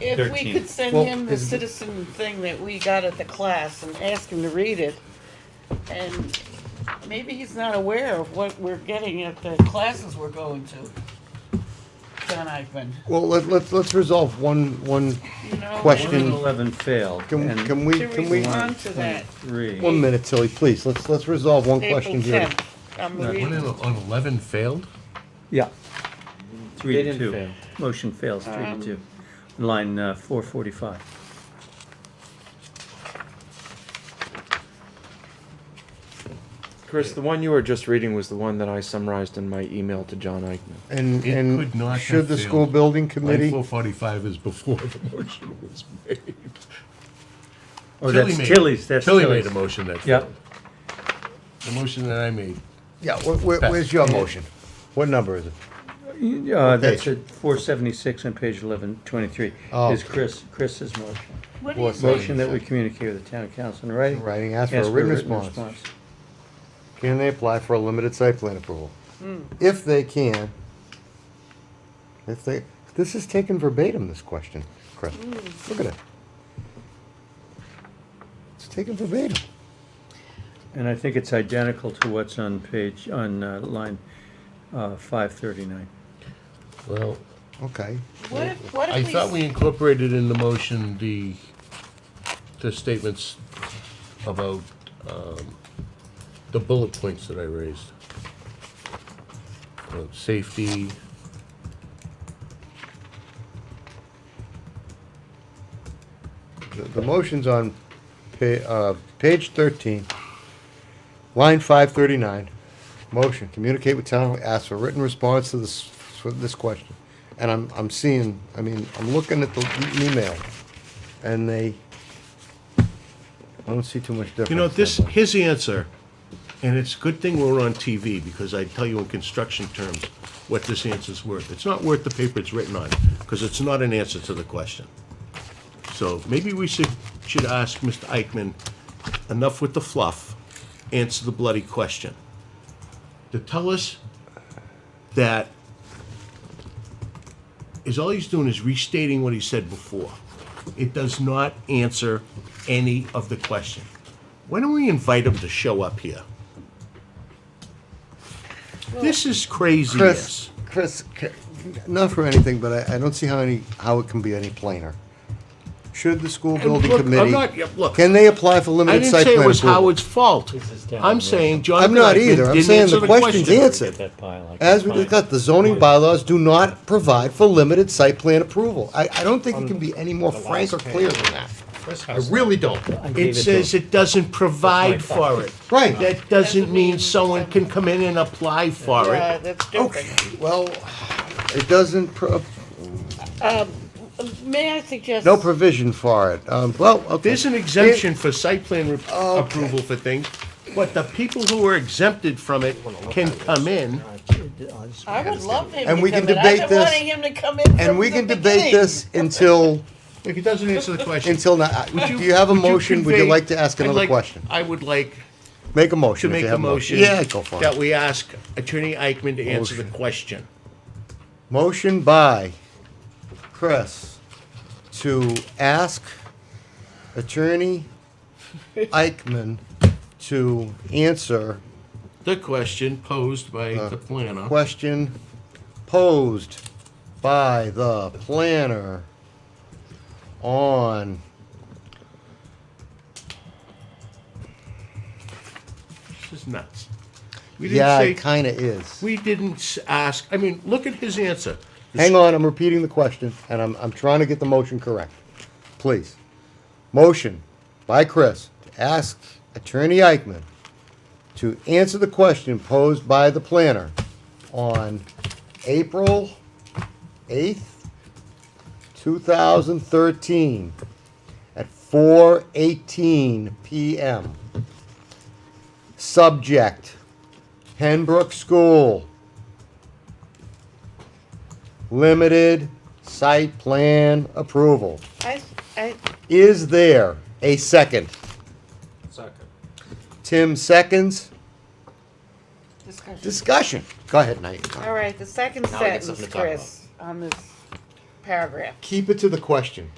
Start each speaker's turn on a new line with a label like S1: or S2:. S1: If we
S2: 13th.
S1: could send
S3: Well,
S1: him the
S3: is the-
S1: citizen thing that we got at the class and ask him to read it, and maybe he's not aware of what we're getting at the classes we're going to. John Eichman,
S3: Well, let, let's, let's resolve one, one,
S1: you know.
S3: Question.
S2: One and eleven failed,
S3: can, can
S2: and
S3: we,
S1: To
S3: can we?
S1: respond to that,
S2: three.
S3: One minute, Tilly, please. Let's, let's resolve one
S1: April
S3: question here.
S1: tenth, I'm
S4: One
S1: reading.
S4: in- on eleven failed?
S2: Yeah. Three
S5: They
S2: to
S5: didn't
S2: two.
S5: fail.
S2: Motion fails, three
S3: Um,
S2: to two. Line uh, four forty-five.
S5: Chris, the one you were just reading was the one that I summarized in my email to John Eichmann.
S3: And,
S4: It could
S3: and
S4: not have
S3: should the
S4: failed.
S3: school building
S4: Line
S3: committee,
S4: four forty-five is before the motion was made.
S2: Oh,
S4: Tilly
S2: that's
S4: made-
S2: Tilly's, that's
S4: Tilly made
S2: Tilly's.
S4: a motion that
S2: Yeah.
S4: failed. The motion that I made.
S3: yeah, where, where-
S4: Beth.
S3: where's your motion? What number is it?
S2: Uh, that's
S3: page?
S2: at four seventy-six on page eleven twenty-three.
S3: Oh.
S2: Is Chris, Chris's motion.
S1: What
S3: What
S1: is it?
S2: Motion that we communicate with the town council in writing.
S3: Writing, ask for a written response. Can they apply for a limited site plan approval?
S1: Hmm.
S3: If they can, if they, this is taken verbatim, this question, Chris.
S1: Hmm.
S3: Look at it. It's taken verbatim.
S2: And I think it's identical to what's on page, on uh, line uh, five thirty-nine.
S4: Well,
S3: Okay.
S1: What if, what
S4: I
S1: if we?
S4: thought we incorporated in the motion the, the statements about, um, the bullet points that I raised. About Safety.
S3: The, the motion's on pa- uh, page thirteen, line five thirty-nine. Motion, communicate with town, ask for written response to this, for this question. And I'm, I'm seeing, I mean, I'm looking at the e- email, and they, I don't see too much difference.
S4: You know, this,
S3: that much.
S4: his answer, and it's a good thing we're on TV, because I tell you in construction terms what this answer's worth. It's not worth the paper it's written on, because it's not an answer to the question. So maybe we should, should ask Mr. Eichmann, enough with the fluff, answer the bloody question. To tell us that is all he's doing is restating what he said before. It does not answer any of the question. Why don't we invite him to show up here? This is
S3: Chris,
S4: craziness.
S3: Chris, c- not for anything, but I, I don't see how any, how it can be any plainer. Should the school building
S4: look, I'm
S3: committee?
S4: not- yeah, look.
S3: Can they apply for
S4: I
S3: limited
S4: didn't
S3: site
S4: say
S3: plan
S4: it was
S3: approval?
S4: Howard's fault.
S5: is down
S4: I'm
S5: the road.
S4: saying John.
S3: I'm not
S4: Blackman
S3: either. I'm
S4: didn't
S3: saying
S4: answer
S3: the question's
S4: question.
S3: answered. As we discussed, the zoning bylaws do not provide for limited site plan approval. I, I don't
S4: Um,
S3: think it can be any more frank or clear than that.
S4: I really don't.
S5: gave
S4: It
S5: it to
S4: says it doesn't provide for it.
S3: Right.
S4: That doesn't
S1: Doesn't
S4: mean
S1: mean
S4: someone can come in and apply for
S1: Yeah,
S4: it.
S1: uh, that's different.
S3: Well, it doesn't, pro-
S1: May I suggest?
S3: no provision for it. Um, well, okay.
S4: There's an exemption for site plan re- approval for things, but the people who are exempted from it can come in.
S1: I would love him to come in.
S3: And we can debate
S1: I've been
S3: this,
S1: wanting him to come in
S3: And
S1: from
S3: we
S1: the
S3: can debate
S1: beginning.
S3: this until,
S4: If he doesn't answer the question.
S3: until, now. do you have a motion? Would you
S4: convey-
S3: like to ask
S4: I'd
S3: another
S4: like-
S3: question?
S4: I would like
S3: Make a motion
S4: to
S3: if
S4: make
S3: you
S4: a
S3: have
S4: motion.
S3: Yeah, go for
S4: That
S3: it.
S4: we ask Attorney Eichmann to answer the question.
S3: Motion by Chris to ask Attorney Eichmann to answer
S4: The question posed by
S3: Uh,
S4: the planner.
S3: question posed by the planner on
S4: This is nuts. We didn't
S3: yeah
S4: say-
S3: it kind of is
S4: We didn't s- ask, I mean, look at his answer.
S3: hang on i'm repeating the question and I'm, I'm trying to get the motion correct please motion by chris to ask attorney eichmann to answer the question posed by the planner on april 8th 2013 at 4:18 p.m. Subject: Henbrook School. Limited site plan approval.
S1: I, I,
S3: Is there a second?
S5: Second.
S3: Tim seconds.
S1: discussion.
S3: Discussion. Go ahead, Knight.
S1: All right, the second
S5: Now we get
S1: sentence,
S5: something to talk
S1: Chris, on this paragraph.
S3: Keep it to the question.